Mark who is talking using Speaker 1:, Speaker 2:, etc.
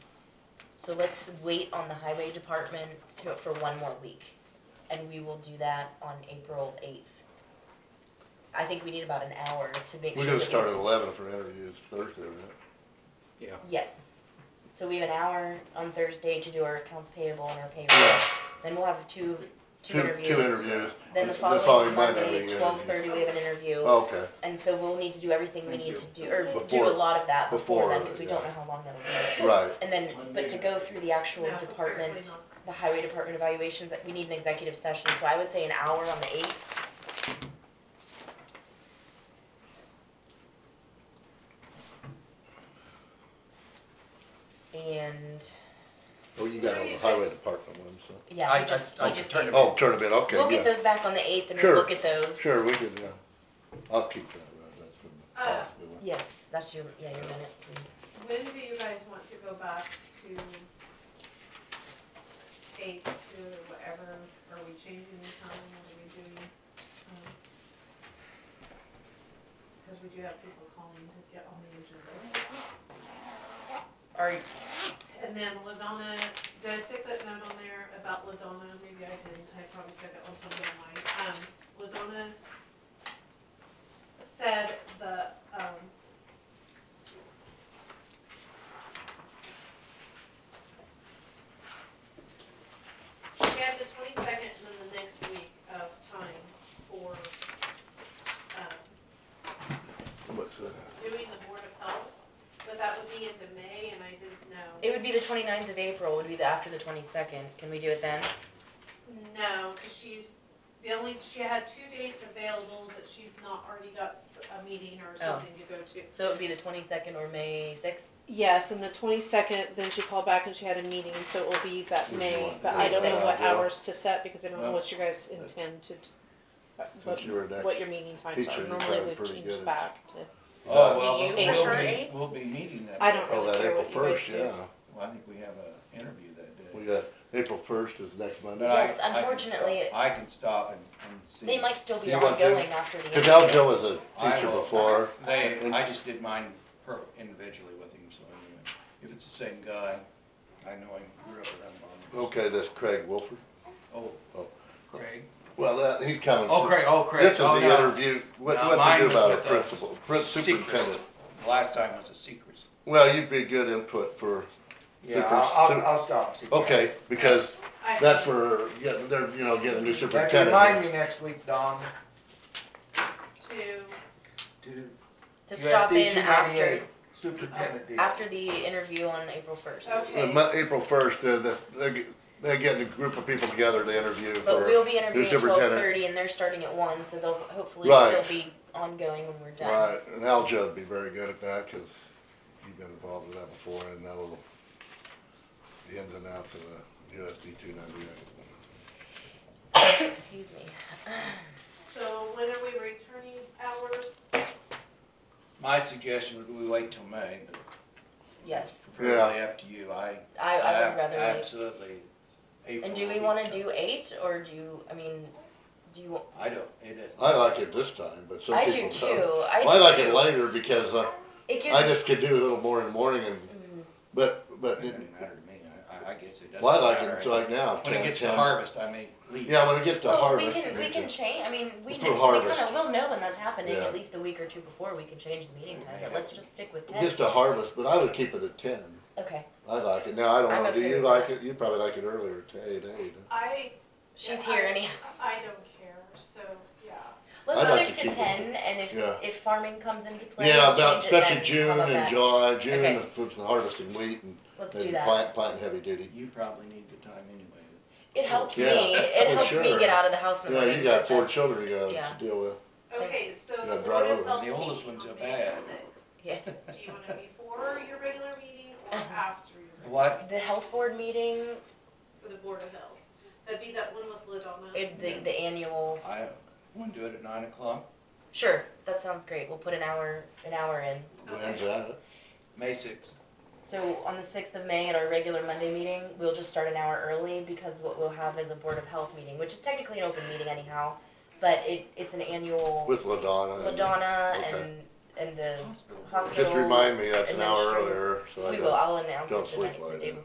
Speaker 1: So let's wait on the highway department to, for one more week, and we will do that on April eighth. I think we need about an hour to make sure.
Speaker 2: We're gonna
Speaker 1: that
Speaker 2: start at eleven for interviews Thursday, right?
Speaker 3: Yeah.
Speaker 1: Yes, so we have an hour on Thursday to do our accounts payable and our payroll, then we'll have two, two interviews.
Speaker 2: Two interviews.
Speaker 1: Then the
Speaker 2: following
Speaker 1: following
Speaker 2: Monday,
Speaker 1: Monday,
Speaker 2: we get
Speaker 1: twelve thirty, we have an interview.
Speaker 2: Okay,
Speaker 1: And so we'll need to do everything we need to do, or do
Speaker 2: Before-
Speaker 1: a lot of that before
Speaker 2: before
Speaker 1: then, because we don't
Speaker 2: that.
Speaker 1: know how long that'll be.
Speaker 2: right,
Speaker 1: And then, but to go through the actual department, the highway department evaluations, that we need an executive session, so I would say an hour on the eighth. And,
Speaker 2: well, you got on the highway department one, so.
Speaker 1: yeah,
Speaker 3: I-
Speaker 1: he just,
Speaker 3: I-
Speaker 1: he
Speaker 3: I
Speaker 1: just
Speaker 3: turned
Speaker 1: gave-
Speaker 3: it
Speaker 2: Oh, tournament, okay,
Speaker 1: We'll get
Speaker 2: yeah,
Speaker 1: those back on the eighth and
Speaker 2: Sure.
Speaker 1: we'll look at those.
Speaker 2: sure, we can, yeah, I'll keep that, right, that's from the
Speaker 4: Uh,
Speaker 2: last one.
Speaker 1: Yes, that's your, yeah, your minutes. and-
Speaker 4: When do you guys want to go back to eight to whatever, are we changing the time, what are we doing? Um, Cause we do have people calling to get on the agenda.
Speaker 1: Are,
Speaker 4: And then Ladonna, did I stick that note on there about Ladonna? Maybe I didn't, I probably stuck it on something of mine. Um, Ladonna said the, um, she had the twenty-second and then the next week of time for, um,
Speaker 2: What's that?
Speaker 4: doing the Board of Health, but that would be into May and I didn't know.
Speaker 1: It would be the 29th of April, would be the after the twenty-second, can we do it then?
Speaker 4: No, because she's, the only, she had two dates available that she's not already got s- a meeting or something to go to.
Speaker 1: So it would be the twenty-second or May sixth?
Speaker 5: Yes, and the twenty-second, then she called back and she had a meeting, so it will be that
Speaker 2: Would you
Speaker 5: May,
Speaker 2: want
Speaker 5: but
Speaker 2: to
Speaker 5: I
Speaker 1: do
Speaker 5: don't know
Speaker 1: that?
Speaker 5: what
Speaker 2: Yeah.
Speaker 5: hours to set, because I don't know
Speaker 3: Well,
Speaker 5: what you guys
Speaker 2: that's-
Speaker 5: intend to, d- uh,
Speaker 2: Since you were
Speaker 5: what,
Speaker 2: next
Speaker 5: what your meeting times
Speaker 2: teacher,
Speaker 5: are,
Speaker 2: you
Speaker 5: normally
Speaker 2: sounded
Speaker 5: it would
Speaker 2: pretty good
Speaker 5: change
Speaker 2: at-
Speaker 5: back to,
Speaker 2: Uh,
Speaker 3: Oh,
Speaker 1: Do you
Speaker 3: well,
Speaker 1: prefer
Speaker 3: we'll be,
Speaker 1: eight?
Speaker 3: we'll be meeting that.
Speaker 5: I don't
Speaker 3: day.
Speaker 2: Oh, that
Speaker 5: care
Speaker 2: April
Speaker 5: what you guys
Speaker 2: first,
Speaker 5: do.
Speaker 2: yeah,
Speaker 3: Well, I think we have a interview that
Speaker 2: we
Speaker 3: day.
Speaker 2: got, April first is next
Speaker 3: But
Speaker 2: Monday.
Speaker 3: I-
Speaker 1: Yes,
Speaker 3: I can
Speaker 1: unfortunately-
Speaker 3: stop- I can stop and, and see.
Speaker 1: They might still be
Speaker 2: You want to?
Speaker 1: ongoing after the.
Speaker 2: Cause
Speaker 1: interview.
Speaker 2: Aljo was a
Speaker 3: I
Speaker 2: teacher
Speaker 3: will-
Speaker 2: before,
Speaker 3: They,
Speaker 2: and-
Speaker 3: I just did mine per, individually with him, so anyway, if it's the same guy, I know him, whoever I'm on.
Speaker 2: okay, that's Craig Wolford,
Speaker 3: Oh,
Speaker 2: Oh.
Speaker 3: Craig?
Speaker 2: well, that, he's coming.
Speaker 3: Oh, Craig, oh, Craig.
Speaker 2: This is
Speaker 3: Oh,
Speaker 2: the
Speaker 3: no.
Speaker 2: interview, what,
Speaker 3: No,
Speaker 2: what
Speaker 3: mine
Speaker 2: to do
Speaker 3: was
Speaker 2: about a
Speaker 3: with a
Speaker 2: principal, prin-
Speaker 3: secret.
Speaker 2: superintendent.
Speaker 3: Last time was a secret.
Speaker 2: Well, you'd be good input for,
Speaker 3: Yeah,
Speaker 2: Super-
Speaker 3: I'll, I'll,
Speaker 2: super-
Speaker 3: I'll stop and see.
Speaker 2: okay, because
Speaker 4: I-
Speaker 2: that's for, yeah, they're, you know, getting a new
Speaker 3: But Remind
Speaker 2: superintendent.
Speaker 3: me next week, Don,
Speaker 4: To,
Speaker 3: to
Speaker 1: To stop
Speaker 3: USD
Speaker 1: in
Speaker 3: two
Speaker 1: after,
Speaker 3: ninety-eight, superintendent deal.
Speaker 1: Uh, after the interview on April first.
Speaker 2: The
Speaker 4: Okay.
Speaker 2: mon- April first, uh, they're, they're, ge- they're getting a group of people together to interview
Speaker 1: But
Speaker 2: for,
Speaker 1: we'll be interviewing at twelve
Speaker 2: superintendent.
Speaker 1: thirty and they're starting at one, so they'll hopefully
Speaker 2: Right.
Speaker 1: still be ongoing when we're done.
Speaker 2: right, and Aljo would be very good at that, cause you've been involved with that before and know the ins and outs of the USD two ninety-eight.
Speaker 1: Excuse me.
Speaker 4: so when are we returning hours?
Speaker 3: My suggestion would we wait till May, but
Speaker 1: Yes,
Speaker 3: really up to you, I,
Speaker 1: I, I
Speaker 3: I
Speaker 1: would rather wait.
Speaker 3: absolutely. April
Speaker 1: And do
Speaker 3: will
Speaker 1: we
Speaker 3: be
Speaker 1: wanna
Speaker 3: tough.
Speaker 1: do eight or do you, I mean, do you,
Speaker 3: I don't, it is.
Speaker 2: I like it this time, but some
Speaker 1: I
Speaker 2: people
Speaker 1: do
Speaker 2: don't.
Speaker 1: too, I do too.
Speaker 2: I like it later because uh,
Speaker 1: It gives.
Speaker 2: I just could do a little more in the morning and,
Speaker 1: Mm,
Speaker 2: but, but,
Speaker 3: It doesn't matter to me, I, I, I guess it doesn't matter.
Speaker 2: well, I like it
Speaker 3: I-
Speaker 2: like now,
Speaker 3: When it
Speaker 2: ten,
Speaker 3: gets to
Speaker 2: ten.
Speaker 3: harvest, I may leave.
Speaker 2: Yeah, when it gets to
Speaker 1: Well, we
Speaker 2: harvest.
Speaker 1: can, we can change, I mean, we,
Speaker 2: For
Speaker 1: kn- we
Speaker 2: harvest.
Speaker 1: kinda will know when that's happening,
Speaker 2: Yeah.
Speaker 1: at least a week or two before, we can change the meeting time, but let's just stick with
Speaker 2: It
Speaker 1: ten.
Speaker 2: Gets to harvest, but I would keep it at ten.
Speaker 1: Okay,
Speaker 2: I like it. Now, I don't
Speaker 1: I'm
Speaker 2: know, do
Speaker 1: okay
Speaker 2: you
Speaker 1: with
Speaker 2: like it? You probably like it earlier, to eight, eight.
Speaker 4: I,
Speaker 1: she's
Speaker 4: Yeah,
Speaker 1: here
Speaker 4: I-
Speaker 1: anyhow.
Speaker 4: I don't care, so, yeah.
Speaker 1: Let's
Speaker 2: I'd like
Speaker 1: stick to
Speaker 2: to keep it.
Speaker 1: ten, and if,
Speaker 2: Yeah.
Speaker 1: if farming comes into play,
Speaker 2: Yeah,
Speaker 1: we'll
Speaker 2: about,
Speaker 1: change it then,
Speaker 2: especially June
Speaker 1: how about
Speaker 2: and
Speaker 1: that?
Speaker 2: July, June,
Speaker 1: Okay.
Speaker 2: it's it's harvesting wheat and
Speaker 1: Let's do
Speaker 2: and
Speaker 1: that.
Speaker 2: plant, planting heavy duty.
Speaker 3: You probably need the time anyway.
Speaker 1: It helps me,
Speaker 2: Yeah,
Speaker 1: it
Speaker 2: for
Speaker 1: helps me
Speaker 2: sure.
Speaker 1: get out of the house in the
Speaker 2: Yeah,
Speaker 1: morning.
Speaker 2: you got four
Speaker 1: that's-
Speaker 2: children you
Speaker 1: yeah.
Speaker 2: gotta deal with.
Speaker 4: Okay, so
Speaker 2: Yeah,
Speaker 4: the
Speaker 2: drive
Speaker 4: Board
Speaker 2: over.
Speaker 4: of Health
Speaker 3: The oldest
Speaker 4: meeting
Speaker 3: one's
Speaker 4: on
Speaker 3: a
Speaker 4: May
Speaker 3: bad.
Speaker 4: sixth.
Speaker 1: Yeah,
Speaker 4: Do you wanna before your regular meeting or
Speaker 1: Uh-huh.
Speaker 4: after your? regular-
Speaker 3: What?
Speaker 1: the health board meeting,
Speaker 4: For the Board of Health, that'd be that one with Ladonna.
Speaker 1: it, the, the annual,
Speaker 3: I, wanna do it at nine o'clock,
Speaker 1: sure, that sounds great, we'll put an hour, an hour in.
Speaker 2: When's that?
Speaker 3: May sixth.
Speaker 1: So on the sixth of May at our regular Monday meeting, we'll just start an hour early because what we'll have is a Board of Health meeting, which is technically an open meeting anyhow, but it, it's an annual
Speaker 2: With LaDonna. and-
Speaker 1: LaDonna
Speaker 2: okay.
Speaker 1: and, and the
Speaker 3: Hospital.
Speaker 1: hospital.
Speaker 2: Just remind me, that's an hour
Speaker 1: administrator.
Speaker 2: earlier, so I
Speaker 1: We
Speaker 2: don't.
Speaker 1: will, I'll announce
Speaker 2: don't
Speaker 1: it the
Speaker 2: sleep
Speaker 1: night,
Speaker 2: well,
Speaker 1: the day
Speaker 2: yeah.
Speaker 1: before.